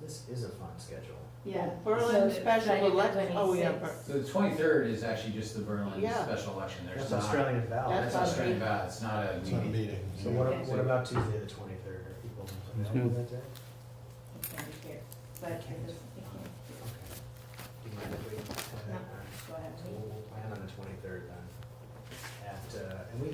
This is a fun schedule. Yeah. So, Berlin special Friday the election, oh, yeah, 26th. The twenty-third is actually just the Berlin Yeah. special election, there's That's not, Australian ballot. that's That's on Australian me. ballot, it's not a It's not a meeting. meeting. So what, Okay. what about Tuesday, the twenty-third? Are people Mm-hmm. available that day? I can't hear, but it doesn't, it can't, Okay. Do you mind if we have that? No. All right. go ahead. So we'll, we'll plan on the twenty-third then. At, uh, and we,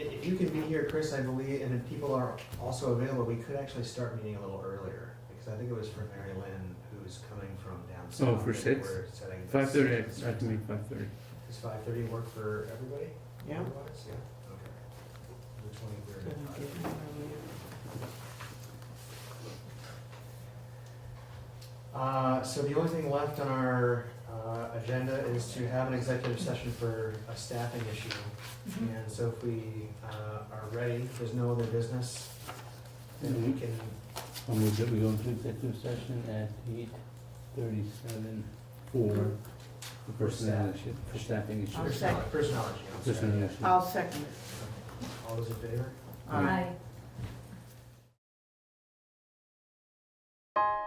i- if you can be here, Chris, I believe, and if people are also available, we could actually start meeting a little earlier. Because I think it was for Mary Lynn, who's coming from down south. Oh, for and six? we're setting the Five thirty, start I can time. make five thirty. Does five thirty work for everybody? Yeah. Otherwise, yeah, okay. The twenty-third at five. Uh, so the only thing left on our, uh, agenda is to have an executive session for a staffing issue. Mm-hmm. And so if we, uh, are ready, if there's no other business, then we Mm-hmm. Mhm. can, I'll move that we go into executive session at eight thirty-seven for the personnel issue, for staffing I'll issue. personnel, sec- personnel issue, I'm sorry. Personnel issue. I'll second it. All those in favor? Aye. Aye.